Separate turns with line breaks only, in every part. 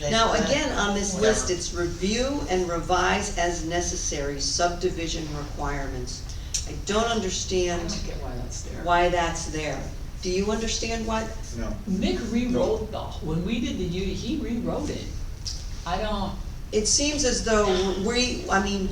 Now, again, on this list, it's review and revise as necessary subdivision requirements. I don't
I
understand
don't get why that's there.
why that's there. Do you understand why?
No,
Mick rewrote the, when we did the U, he rewrote it. I don't,
It seems as though we, I mean,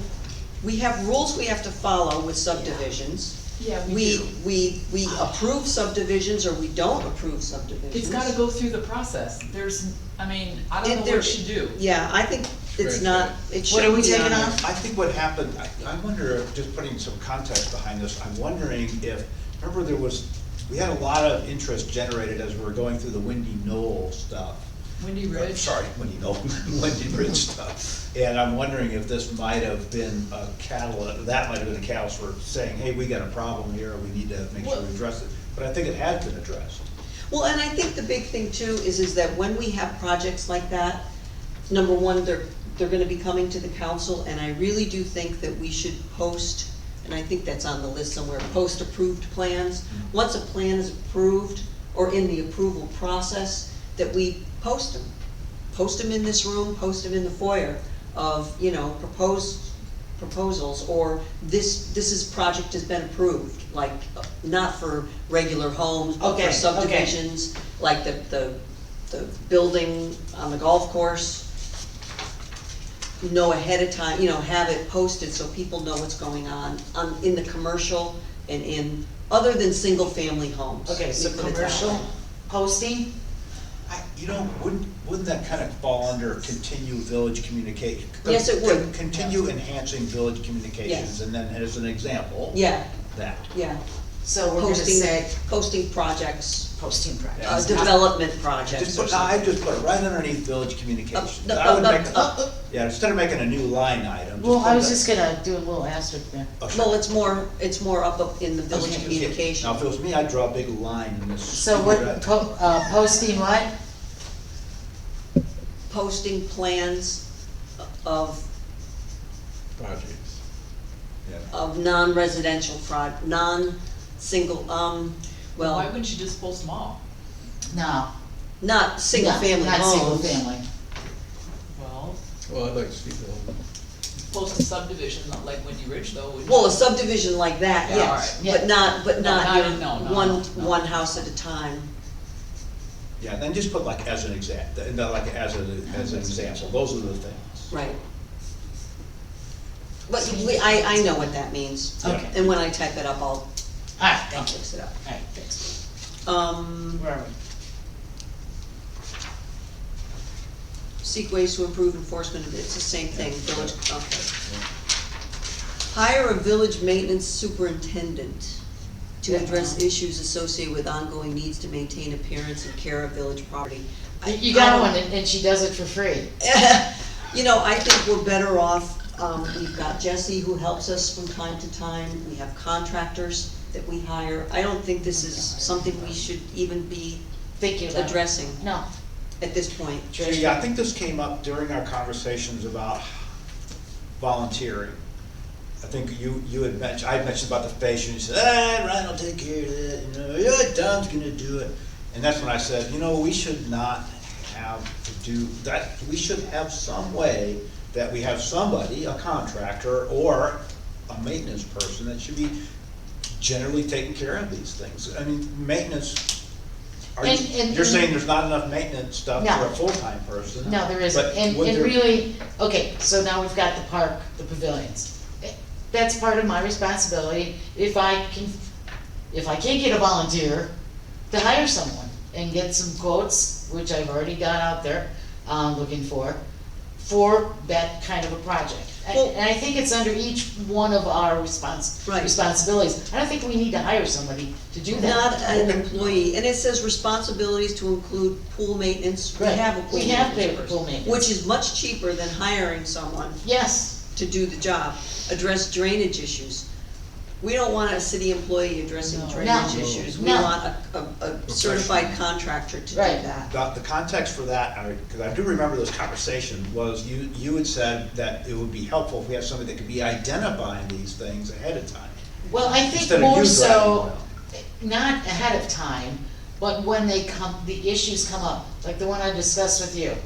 we have rules we have to follow with subdivisions.
yeah, we
We,
do.
we, we approve subdivisions or we don't approve subdivisions.
It's gotta go through the process. There's, I mean, I don't
It-
know what
there-
it should do.
Yeah, I think it's
Right.
not, it
What
should
are we
be on
taking
there.
off? I think what happened, I, I wonder, if- just putting some context behind this, I'm wondering if, remember there was, we had a lot of interest generated as we were going through the Windy Knoll stuff.
Wendy
Uh,
Ridge.
Sorry, Wendy Knoll, Wendy Bridge stuff. And I'm wondering if this might have been a catalyst, that might have been a catalyst for saying, hey, we got a problem here, we need to make sure
Well-
we address it. But I think it has been addressed.
Well, and I think the big thing too is, is that when we have projects like that, number one, they're, they're gonna be coming to the council, and I really do think that we should post, and I think that's on the list somewhere, post approved plans. Once a plan is approved or in the approval process, that we post them. Post them in this room, post them in the foyer of, you know, proposed proposals, or this, this is, project has been approved, like, not for regular homes, but
Okay,
for
okay.
subdivisions, like the, the, the building on the golf course. Know ahead of time, you know, have it posted so people know what's going on, um, in the commercial and in, other than single-family homes.
Okay, so
We put it that
commercial
way.
posting,
I, you know, wouldn't, wouldn't that kind of fall under continue village communication?
Yes, it would.
Continue enhancing village communications,
Yes.
and then as an example.
Yeah,
That.
yeah,
so we're gonna
posting,
say
posting projects,
posting
uh,
projects.
development
Just
projects or
put, I
something.
just put it right underneath village communications.
Up, up,
I would
up,
make a-
up, up.
Yeah, instead of making a new line item.
Well, I
put
was
that-
just gonna do a little asterisk there.
Oh, sure.
Well, it's more, it's more up up in the village
Okay.
communication.
Now, if it was me, I'd draw a big line in this.
So what,
stupid, uh,
po- uh, posting what?
posting plans of,
Projects.
yeah.
of non-residential fraud, non-single, um,
Why
well,
wouldn't you just post them all?
No.
not
no,
single-family
Not single
homes.
family.
Well,
Well, I'd like to see the.
post a subdivision, not like Wendy Ridge though, would you?
Well, a subdivision like that,
Yeah,
yes,
alright,
yeah.
but not, but
No,
not
not-
your
no, no,
one,
no.
one house at a time.
Yeah, then just put like as an exact, and then like as an, as an example, those are the things.
Right. But we, I, I know what that means.
Yeah.
Okay,
And when I type it up, I'll,
alright,
I'll
thank you.
fix it up.
Alright, thanks.
Um,
Where are we?
seek ways to improve enforcement of it, it's the same thing, village, okay. Hire a village maintenance superintendent to address issues associated with ongoing needs to maintain appearance and care of village property. I-
You
I
got
don't-
one, and and she does it for free.
You know, I think we're better off, um, we've got Jesse who helps us from time to time, we have contractors that we hire. I don't think this is something we should even be
Thank you. Lana.
addressing
No,
at this point.
So, yeah, I think this came up during our conversations about volunteering. I think you, you had mentioned, I had mentioned about the fascia, and you said, ah, Ryan will take care of that, you know, yeah, Don's gonna do it. And that's when I said, you know, we should not have to do, that, we should have some way that we have somebody, a contractor or a maintenance person that should be generally taking care of these things. I mean, maintenance, are
And-
you,
and-
you're saying there's not enough maintenance stuff for
No.
a full-time person.
no, there isn't.
But
And,
would
and
there-
really, okay, so now we've got the park, the pavilions. Eh, That's part of my responsibility, if I can, if I can't get a volunteer, to hire someone and get some quotes, which I've already got out there, um, looking for, for that kind of a project. And
Well-
and I think it's under each one of our respons-
Right.
responsibilities. I don't think we need to hire somebody to do that.
Not an employee, and it says responsibilities to include pool maintenance, we
Right.
have a pool
We have
maintenance
paid
person,
pool maintenance.
Which is much cheaper than hiring someone
Yes,
to do the job, address drainage issues. We don't want a city employee addressing
No.
drainage
No.
issues, we
No.
want a, a, a certified contractor to do
Right.
that.
The, the context for that, I, because I do remember this conversation, was you, you had said that it would be helpful if we have somebody that could be identifying these things ahead of time.
well, I
Instead
think
of
more
you
so,
driving
not ahead of time, but when they come, the issues come up, like the one I discussed with you.